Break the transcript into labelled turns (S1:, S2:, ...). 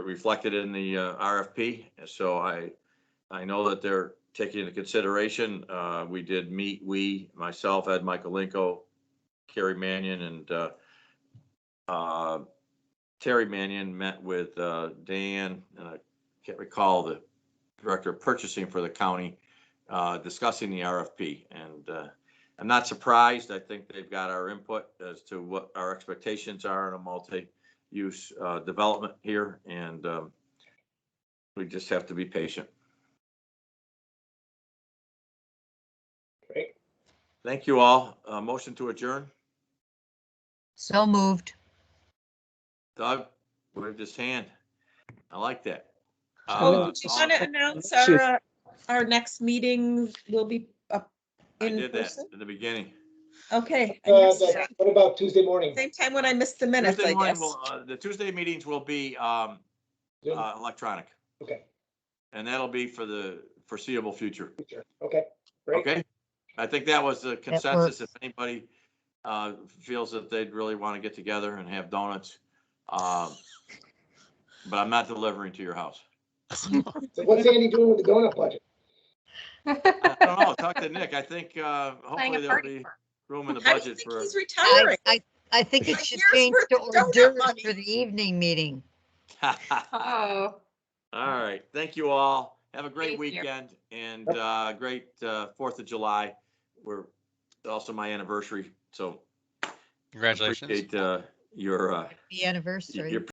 S1: reflected in the uh, RFP. So I, I know that they're taking into consideration. Uh, We did meet, we, myself, Ed Michaelenko, Carrie Mannion, and uh, uh, Terry Mannion met with uh, Dan, and I can't recall the director of purchasing for the county, uh, discussing the RFP. And uh, I'm not surprised. I think they've got our input as to what our expectations are in a multi, use uh, development here, and um, we just have to be patient.
S2: Great.
S1: Thank you all. Uh, Motion to adjourn.
S3: So moved.
S1: Doug waved his hand. I like that.
S2: Oh,
S1: Uh,
S4: Do you
S1: all-
S4: want to announce
S2: Shoot.
S4: our, uh, our next meeting will be up
S1: I
S4: in
S1: did that
S4: person?
S1: in the beginning.
S4: Okay. I
S2: Uh,
S4: missed
S2: but
S4: that.
S2: What about Tuesday morning?
S4: Same time when I missed the minutes,
S1: Tuesday
S4: I
S1: morning
S4: guess.
S1: will, uh, The Tuesday meetings will be um,
S2: Zoom?
S1: uh, electronic,
S2: Okay,
S1: and that'll be for the foreseeable future.
S2: sure. okay, great.
S1: Okay, I think that was the
S3: works.
S1: consensus. If anybody uh, feels that they'd really want to get together and have donuts. um, But I'm not delivering to your house.
S2: So what's Andy doing with the donut budget?
S1: I don't know, talk to Nick. I think uh,
S5: playing a
S1: hopefully there'll
S5: party.
S1: be
S5: for-
S1: room in the
S4: I don't
S1: budget
S4: think
S1: for,
S4: He's
S3: I,
S4: retiring.
S3: I, I think it should
S4: Here's
S3: change
S4: where
S3: to
S4: the donut
S3: hors d'oeuvres
S4: money-
S3: for the evening meeting.
S1: all
S5: Oh,
S1: right, thank you all. Have a great
S5: Thank you.
S1: weekend and uh, great uh, Fourth of July. We're it's also my anniversary, so
S6: Congratulations.
S1: appreciate uh, your, uh,
S3: The anniversary.
S1: your